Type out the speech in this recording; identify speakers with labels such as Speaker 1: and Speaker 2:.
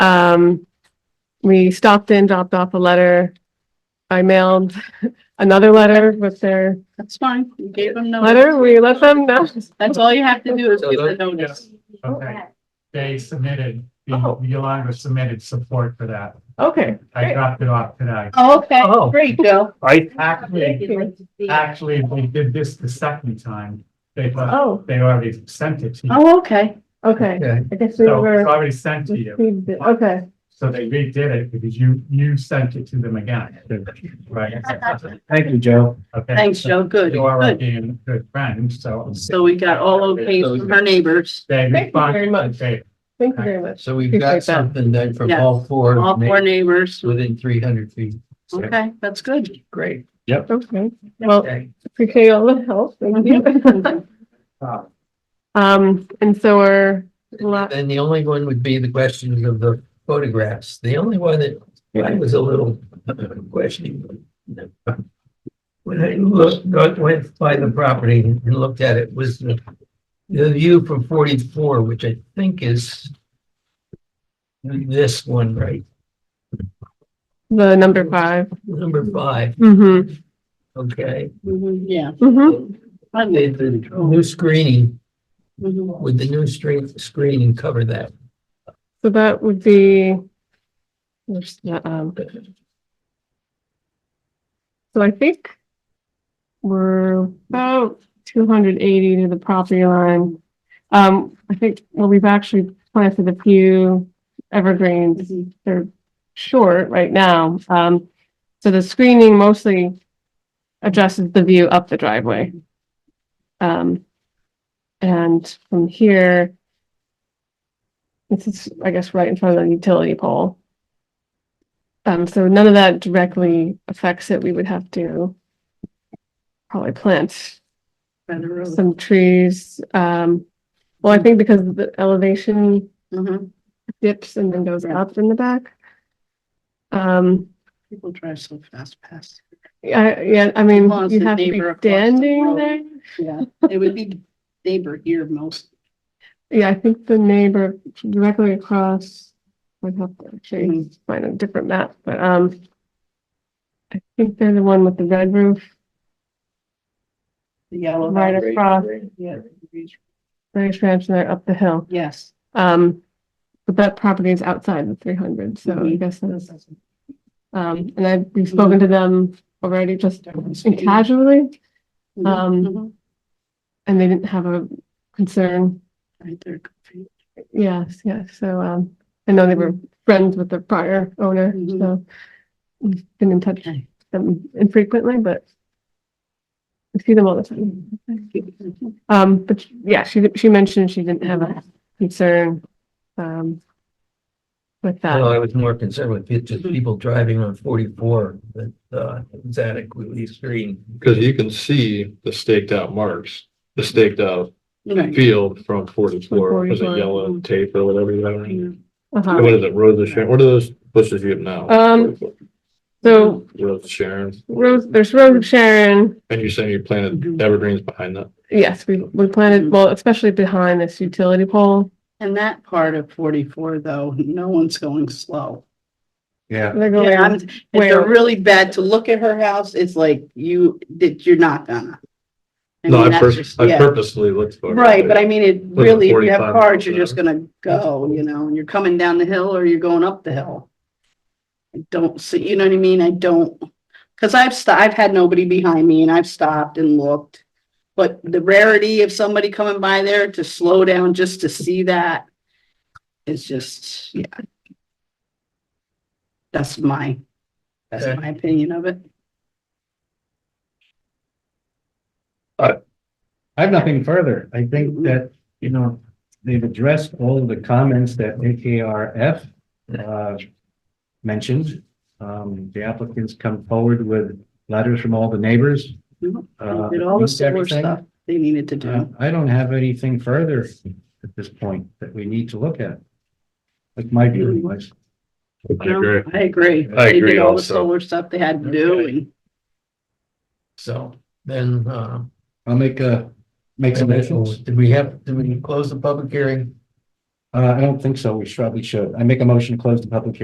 Speaker 1: Um, we stopped in, dropped off a letter. I mailed another letter with their
Speaker 2: That's fine. You gave them notice.
Speaker 1: letter. We let them know.
Speaker 2: That's all you have to do is
Speaker 3: So
Speaker 2: give the
Speaker 3: those-
Speaker 2: notice.
Speaker 4: Okay, they submitted, the
Speaker 1: Oh.
Speaker 4: Yolanda submitted support for that.
Speaker 1: Okay,
Speaker 4: I
Speaker 1: great.
Speaker 4: dropped it off today.
Speaker 2: Okay,
Speaker 3: Oh.
Speaker 2: great, Joe.
Speaker 3: I,
Speaker 4: Actually,
Speaker 5: Actually,
Speaker 4: actually, we did this the second time. They,
Speaker 1: Oh,
Speaker 4: they already sent it to you.
Speaker 2: Oh, okay.
Speaker 1: okay.
Speaker 3: okay,
Speaker 1: I guess we
Speaker 4: So it's
Speaker 1: were.
Speaker 4: already sent to you.
Speaker 1: received it. Okay,
Speaker 4: So they redid it because you, you sent it to them again. Right.
Speaker 3: thank you, Joe.
Speaker 4: Okay.
Speaker 2: Thanks, Joe. Good,
Speaker 4: You are
Speaker 2: good.
Speaker 4: being good friends, so
Speaker 2: So we got all okays from our neighbors.
Speaker 4: they
Speaker 1: Thank you very
Speaker 4: responded.
Speaker 1: much.
Speaker 4: They-
Speaker 1: thank you very much.
Speaker 3: So we've
Speaker 1: Appreciate
Speaker 3: got
Speaker 1: that.
Speaker 3: something then from
Speaker 2: Yeah.
Speaker 3: all four.
Speaker 2: All four
Speaker 3: neighbors
Speaker 2: neighbors.
Speaker 3: Within three hundred feet.
Speaker 2: Okay, that's good.
Speaker 3: Great.
Speaker 1: Okay, well,
Speaker 3: Okay.
Speaker 1: appreciate all the help. Thank you. Um, and so we're,
Speaker 2: uh,
Speaker 1: la-
Speaker 3: And the only one would be the question of the photographs. The only one that I was a little questioning. When I looked, got- went by the property and looked at it was the, the view from forty-four, which I think is this one, right?
Speaker 1: the number 5
Speaker 3: Number five,
Speaker 1: Mm-hmm,
Speaker 3: okay?
Speaker 2: Mhm, Yeah. Mm-hmm.
Speaker 1: mm-hmm.
Speaker 3: The, the new screening,
Speaker 2: Mhm.
Speaker 3: would the new screen, screening cover that?
Speaker 1: So that would be. there's the, um, So I think. We're about two hundred eighty to the property line. Um, I think, well, we've actually planted a few evergreens
Speaker 2: Mhm.
Speaker 1: they're short right now. Um, so the screening mostly addresses the view up the driveway. Um, and from here, this is, I guess, right in front of the utility pole. Um, so none of that directly affects it. We would have to probably plant
Speaker 2: By the road.
Speaker 1: some trees. Um, well, I think because of the elevation
Speaker 2: Mhm.
Speaker 1: dips and then goes up in the back. Um,
Speaker 2: People drive so fast past.
Speaker 1: I, yeah, I mean,
Speaker 2: Lots
Speaker 1: you
Speaker 2: of
Speaker 1: have to be
Speaker 2: neighbor across the
Speaker 1: standing
Speaker 2: road.
Speaker 1: there.
Speaker 2: Yeah, it would be neighbor here most.
Speaker 1: Yeah, I think the neighbor directly across would have to actually
Speaker 2: Mhm.
Speaker 1: find a different map, but, um, I think they're the one with the red roof
Speaker 2: The yellow.
Speaker 1: right
Speaker 2: house.
Speaker 1: across,
Speaker 2: Yeah.
Speaker 1: British Ranch, and they're up the hill.
Speaker 2: Yes.
Speaker 1: Um, but that property is outside the three hundred, so I
Speaker 2: Mhm.
Speaker 1: guess that's, um, and I've,
Speaker 2: Mm-hmm.
Speaker 1: we've spoken to them already just casually, Um,
Speaker 2: Mhm.
Speaker 1: and they didn't have a concern.
Speaker 2: Right there. confused.
Speaker 1: Yes, yes. So, um, I know they were
Speaker 2: Mm-hmm.
Speaker 1: friends with the prior owner,
Speaker 2: Mhm.
Speaker 1: so we've been in touch with
Speaker 2: Okay.
Speaker 1: them infrequently, but we see them all the time. Um, but yeah, she, she mentioned she didn't have
Speaker 2: Mm-hmm.
Speaker 1: a concern, um, with
Speaker 3: Well,
Speaker 1: that.
Speaker 3: I was more concerned with it, just
Speaker 2: Mhm.
Speaker 3: people driving on forty-four, that, uh, it was adequately screened.
Speaker 6: Because you can see the staked out marks, the staked out
Speaker 2: Right.
Speaker 6: field from forty-four, was it
Speaker 1: 44.
Speaker 6: yellow tape or whatever you have?
Speaker 1: Uh-huh.
Speaker 6: What is it, Rose of Sharon, what are those bushes you have now?
Speaker 1: Um, So
Speaker 6: Rose of Sharon,
Speaker 1: Rose, there's Rose of Sharon.
Speaker 6: and you're saying you
Speaker 2: Mhm.
Speaker 6: planted evergreens behind that?
Speaker 1: Yes, we, we
Speaker 2: Mm-hmm.
Speaker 1: planted, well, especially behind this utility pole.
Speaker 2: And that part of forty-four, though, no one's going slow.
Speaker 3: Yeah.
Speaker 1: They're
Speaker 2: Yeah, I'm-
Speaker 1: going,
Speaker 2: It's a
Speaker 1: where-
Speaker 2: really bad, to look at her house, it's like you, that you're not gonna. I
Speaker 6: No,
Speaker 2: mean,
Speaker 6: I
Speaker 2: that's
Speaker 6: pur-
Speaker 2: just-
Speaker 6: I
Speaker 2: yeah.
Speaker 6: purposely looked for. it.
Speaker 2: Right, but I mean, it
Speaker 6: at
Speaker 2: really, if you have
Speaker 6: 45
Speaker 2: cars,
Speaker 6: miles
Speaker 2: you're
Speaker 6: an
Speaker 2: just gonna go, you know, and you're coming down the hill or you're going up the hill. I don't see, you know what I mean? I don't, cause I've sto- I've had nobody behind me and I've stopped and looked. But the rarity of somebody coming by there to slow down just to see that is just, yeah. That's my, that's
Speaker 3: Okay.
Speaker 2: my opinion of it.
Speaker 7: I have nothing further. I think
Speaker 2: Mhm.
Speaker 7: that, you know, they've addressed all of the comments that AKRF uh, mentioned. Um, the applicants come forward with letters from all the neighbors.
Speaker 2: Mhm.
Speaker 7: uh,
Speaker 2: Did all the
Speaker 7: meets
Speaker 2: similar
Speaker 7: everything.
Speaker 2: stuff they needed to
Speaker 7: Uh,
Speaker 2: do.
Speaker 7: I don't have anything further at this point that we need to look at. That's my
Speaker 2: Mm-hmm.
Speaker 7: view anyways.
Speaker 6: I agree.
Speaker 2: I agree.
Speaker 6: I
Speaker 2: They did
Speaker 6: agree
Speaker 2: all the
Speaker 6: also.
Speaker 2: Solar stuff they had to do
Speaker 3: Okay.
Speaker 2: and.
Speaker 3: So then, uh,
Speaker 7: I'll make a, make some motions.
Speaker 3: did we have, did we close the public hearing?
Speaker 7: Uh, I don't think so. We probably should. I make a motion to close the public hearing.